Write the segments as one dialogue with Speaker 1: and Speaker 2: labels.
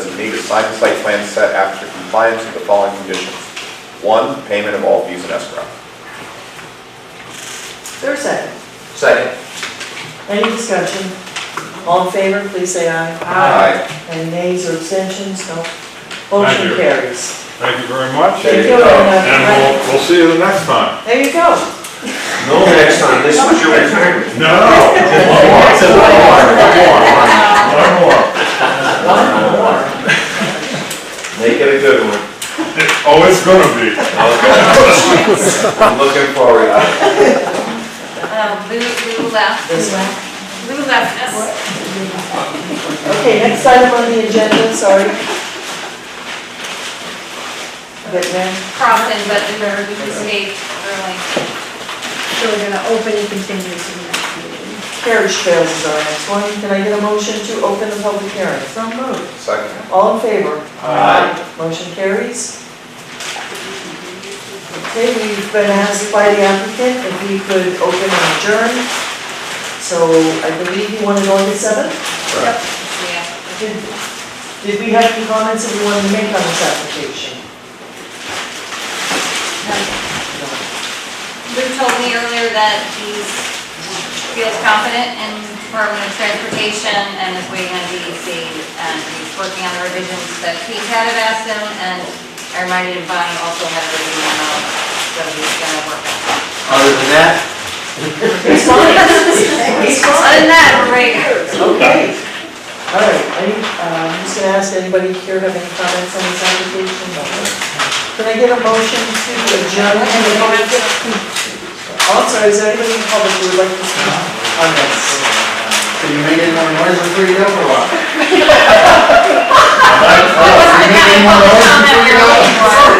Speaker 1: sign the site plan set after compliance with the following conditions. One, payment of all fees in escrow.
Speaker 2: There's a second.
Speaker 3: Second.
Speaker 2: Any discussion? All in favor, please say aye.
Speaker 1: Aye.
Speaker 2: Any nays or abstentions? No. Motion
Speaker 4: you.
Speaker 2: carries.
Speaker 4: Thank you very much,
Speaker 2: Thank you
Speaker 3: There you go.
Speaker 4: and
Speaker 2: very much.
Speaker 4: we'll, we'll see you the next time.
Speaker 2: There you go.
Speaker 3: No, next time, this was your retirement.
Speaker 4: No, one more, one more, one more.
Speaker 3: One more. Make it a good one.
Speaker 4: Oh, it's gonna be.
Speaker 3: I'm looking forward to it.
Speaker 5: Um, Lou, Lou left.
Speaker 2: This one.
Speaker 5: Lou left us.
Speaker 2: Okay, next item on the agenda, sorry. But then,
Speaker 5: Crossing, but we were, we just made early.
Speaker 6: So we're gonna open and continue to the next meeting.
Speaker 2: carriage trails is our next one. Can I get a motion to open the public hearing?
Speaker 6: So moved.
Speaker 1: Second.
Speaker 2: All in favor?
Speaker 3: Aye.
Speaker 2: Motion carries. Okay, we've been asked by the applicant if we could open and adjourn. So I believe you want to go into seven?
Speaker 5: Yeah.
Speaker 2: Did did we have any comments that we wanted to make on this application? No.
Speaker 5: Um, Lou told me earlier that he's, feels confident in Department of Transportation and is waiting on DEC. And he's working on the revisions that Pete had had asked him, and I reminded him Bonnie also had a review on all, so he's gonna work on that.
Speaker 3: Other than that,
Speaker 2: It's fine. It's
Speaker 5: Other
Speaker 2: fine.
Speaker 5: than that, we're ready.
Speaker 2: Okay. All right, any, uh, I'm just gonna ask, anybody here have any comments on this application? No. Can I get a motion to adjourn? and the public- Oh, I'm sorry, is there anybody in public who would like to speak on this?
Speaker 3: so you made it on noise before you go for a while.
Speaker 5: Wasn't the kind of public comment we were looking for.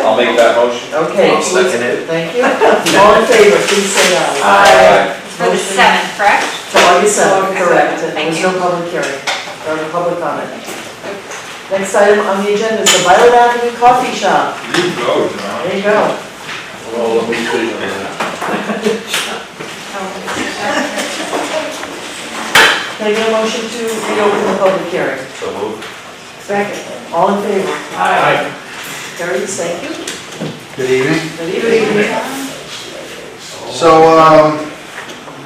Speaker 1: I'll make that motion.
Speaker 2: Okay,
Speaker 3: I'll second it.
Speaker 2: thank you. All in favor, please say aye.
Speaker 5: It's For the seventh, correct?
Speaker 2: So August 7th, correct, and there
Speaker 5: Thank
Speaker 2: was
Speaker 5: you.
Speaker 2: no public hearing, or no public comment. Next item on the agenda is the Violet Avenue Coffee Shop.
Speaker 4: You go, John.
Speaker 2: There you go.
Speaker 3: Well, let me see on that.
Speaker 2: Can I get a motion to reopen the public hearing?
Speaker 3: So moved.
Speaker 2: Second. All in favor?
Speaker 3: Aye.
Speaker 2: Carries, thank you.
Speaker 7: Good evening.
Speaker 2: Good evening.
Speaker 7: So, um,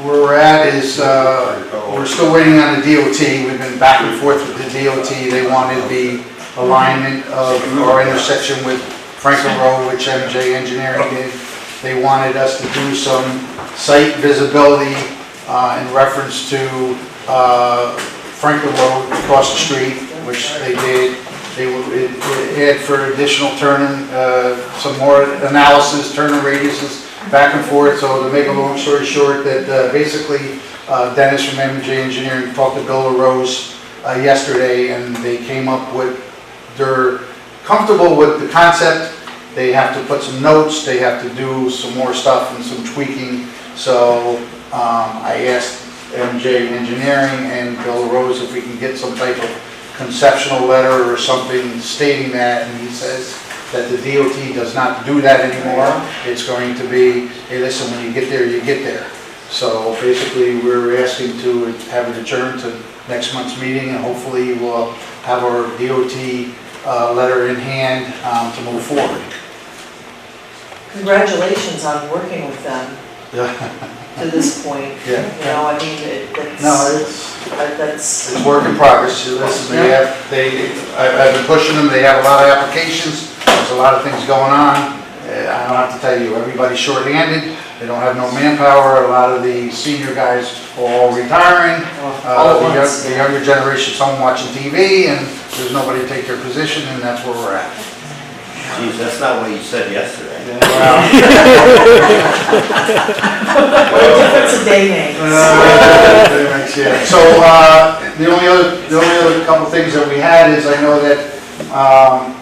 Speaker 7: where we're at is, uh, we're still waiting on the DOT. We've been back and forth with the DOT. They wanted the alignment of our intersection with Franklin Road, which MJ Engineering did. They wanted us to do some site visibility uh, in reference to uh, Franklin Road across the street, which they did. They would it would add for additional turning, uh, some more analysis, turning radiuses back and forth. So to make a long story short, that uh, basically uh, Dennis from MJ Engineering talked to Bill LaRose uh, yesterday, and they came up with, they're comfortable with the concept. They have to put some notes, they have to do some more stuff and some tweaking. So um, I asked MJ Engineering and Bill LaRose if we can get some type of conceptual letter or something stating that, and he says that the DOT does not do that anymore. It's going to be, hey, listen, when you get there, you get there. So basically, we're asking to have it adjourned to next month's meeting, and hopefully we'll have our DOT uh, letter in hand um, to move forward.
Speaker 2: Congratulations on working with them
Speaker 7: Yeah.
Speaker 2: to this point.
Speaker 7: Yeah.
Speaker 2: You know, I mean, it-
Speaker 7: No,
Speaker 2: that's,
Speaker 7: it's...
Speaker 2: that- that's,
Speaker 7: It's work in progress, this is, they have, they, I've, I've been pushing them, they have a lot of applications, there's a lot of things going on. Uh, I don't have to tell you, everybody's shorthanded, they don't have no manpower, a lot of the senior guys are all retiring.
Speaker 2: well, all
Speaker 7: Uh,
Speaker 2: at
Speaker 7: the
Speaker 2: once.
Speaker 7: young- the younger generation, some watching TV, and there's nobody to take their position, and that's where we're at.
Speaker 3: Geez, that's not what you said yesterday.
Speaker 7: Well,
Speaker 2: What a difference a day makes.
Speaker 7: uh, pretty much, yeah. So, uh, the only other, the only other couple things that we had is I know that, um,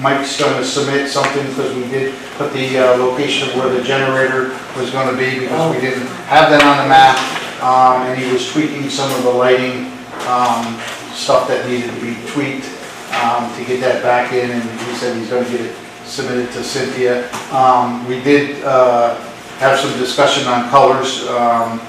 Speaker 7: Mike's gonna submit something, because we did put the uh, location of where the generator was gonna be, because we didn't have that on the map, um, and he was tweaking some of the lighting, um, stuff that needed to be tweaked, um, to get that back in, and he said he's gonna get it submitted to Cynthia. Um, we did, uh, have some discussion on colors, um,